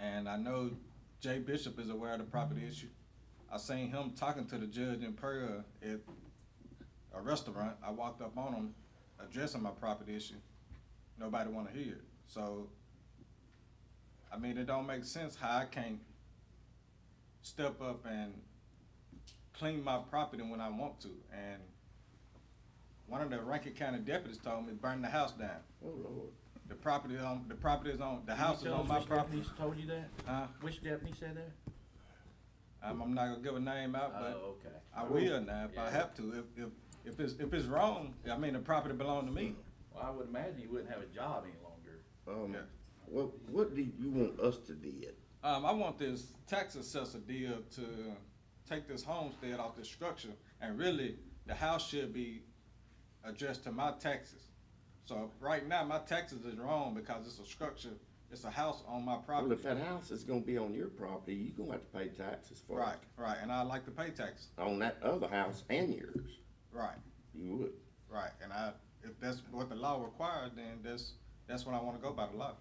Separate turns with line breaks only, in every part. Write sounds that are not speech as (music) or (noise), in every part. And I know Jay Bishop is aware of the property
Mm-hmm.
issue. I seen him talking to the judge in Perga at a restaurant. I walked up on him addressing my property issue. Nobody wanna hear it. So, I mean, it don't make sense how I can't step up and clean my property when I want to. And one of the Rankin County deputies told me, burn the house down.
Oh, Lord.
The property on, the property is on, the
Can you
house is
tell
on
us
my
which
property.
Japanese Told you that?
Huh?
Which Japanese said that?
I'm, I'm not gonna give a name out, but
Oh, okay.
Uh, I will now if I
Yeah.
have to. If, if, if it's, if it's wrong, I mean, the property belonged to me.
Well, I would imagine you wouldn't have a job any longer.
Um,
Yeah.
what, what do you want us to do?
Mm-hmm.
Um, I want this tax assessor deal to take this homestead off the structure, and really, the house should be adjusted to my taxes. So right now, my taxes is wrong because it's a structure, it's a house on my
Well,
property.
if that house is gonna be on your property, you gonna have to pay taxes for
Right,
it.
right, and I like to pay taxes,
On that other house and yours,
right.
you would.
Right, and I, if that's what the law requires, then that's, that's what I wanna go by the law.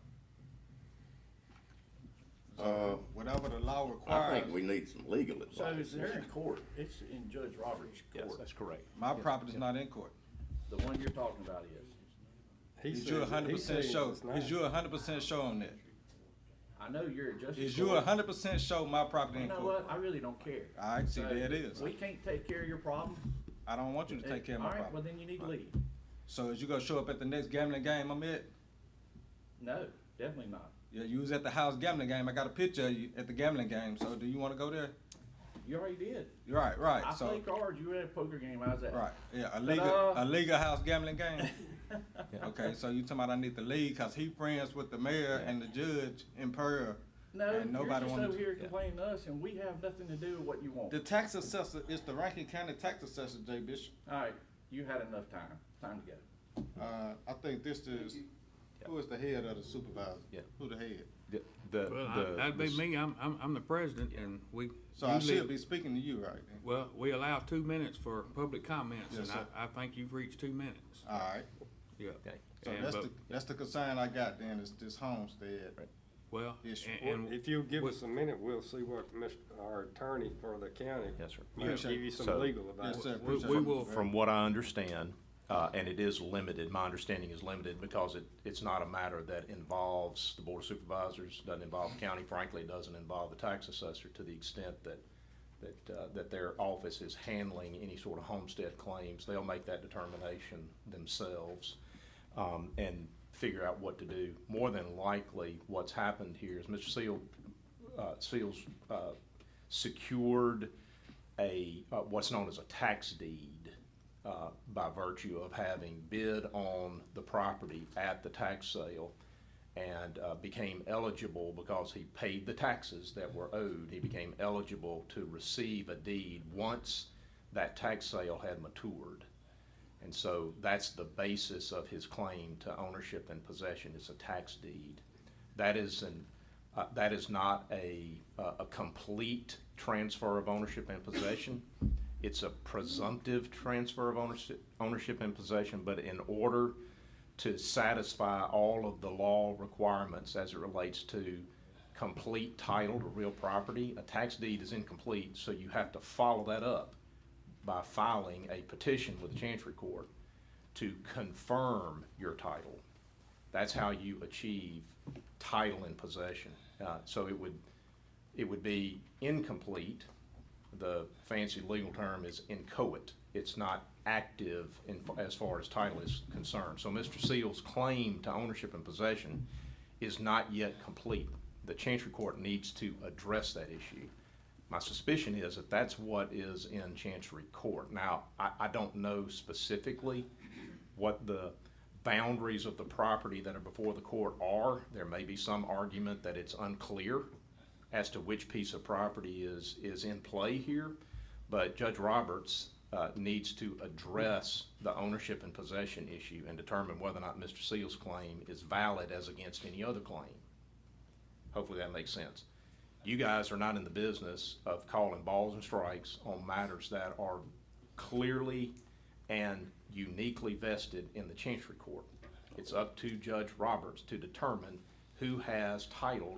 Uh,
Whatever the law
I
requires,
think we need some legal
So
advice.
it's there in court, it's in Judge Roberts'
Yes,
court.
that's correct.
my property's not in court.
The one you're talking about is.
Is you a hundred percent sure, is you a hundred percent sure on that?
I know you're at Justice.
Is you a
Court.
hundred percent sure my property
You
in
know
court?
what? I really don't care.
I see,
So,
there it is.
We can't take care of your problem.
I don't want you to take care of my
All right, well,
property.
then you need to leave.
So is you gonna show up at the next gambling game I'm at?
No, definitely not.
Yeah, you was at the house gambling game, I got a picture of you at the gambling game, so do you wanna go there?
You already did.
You're right,
I
right, so,
played cards, you were at a poker game, I was at.
right, yeah, a
But,
legal,
uh,
a legal house gambling
(laughs)
game? Okay, so you talking about I need to leave because he friends with the mayor and the judge in Pearl.
No,
And
you're
nobody
just
wanted
over
to-
here
yeah.
complaining to us and we have nothing to do with what you want.
The tax assessor is the Rankin County tax assessor, Jay Bishop.
All right, you had enough time. Time to go.
Uh, I think this is, who is the head of the supervisor?
Yeah.
Who the head?
The, the.
Well,
the-
I- that'd be
the-
me, I'm, I'm, I'm the president, and we.
So I
usually-
should be speaking to you right then.
Well, we allow two minutes for public comments,
Yes,
and I,
sir.
I think you've reached two minutes,
All right,
yeah.
Okay.
so
And
that's
but-
the, that's the concern I got then, is this homestead.
Well,
Yes, sir.
and,
Well,
and
If you'll give
what-
us a minute, we'll see what Mr., our attorney for the county.
Yes, sir.
He'll
Appreciate
give you
So-
some legal advice.
Yes, sir,
we,
appreciate
we
it.
will,
From what I understand, uh, and it is limited, my understanding is limited because it, it's not a matter that involves the board of supervisors, doesn't involve county, frankly, it doesn't involve the tax assessor to the extent that, that, uh, that their office is handling any sort of homestead claims. They'll make that determination themselves, um, and figure out what to do. More than likely, what's happened here is Mr. Seal, uh, Seals, uh, secured a, uh, what's known as a tax deed uh, by virtue of having bid on the property at the tax sale and uh, became eligible because he paid the taxes that were owed. He became eligible to receive a deed once that tax sale had matured. And so that's the basis of his claim to ownership and possession is a tax deed. That is an, uh, that is not a, uh, a complete transfer of ownership and possession. It's a presumptive transfer of ownership, ownership and possession, but in order to satisfy all of the law requirements as it relates to complete title to real property, a tax deed is incomplete, so you have to follow that up by filing a petition with the Chancery Court to confirm your title. That's how you achieve title and possession. Uh, so it would, it would be incomplete. The fancy legal term is inchoate. It's not active in, as far as title is concerned. So Mr. Seal's claim to ownership and possession is not yet complete. The Chancery Court needs to address that issue. My suspicion is that that's what is in Chancery Court. Now, I, I don't know specifically what the boundaries of the property that are before the court are. There may be some argument that it's unclear as to which piece of property is, is in play here. But Judge Roberts, uh, needs to address the ownership and possession issue and determine whether or not Mr. Seal's claim is valid as against any other claim. Hopefully that makes sense. You guys are not in the business of calling balls and strikes on matters that are clearly and uniquely vested in the Chancery Court. It's up to Judge Roberts to determine who has title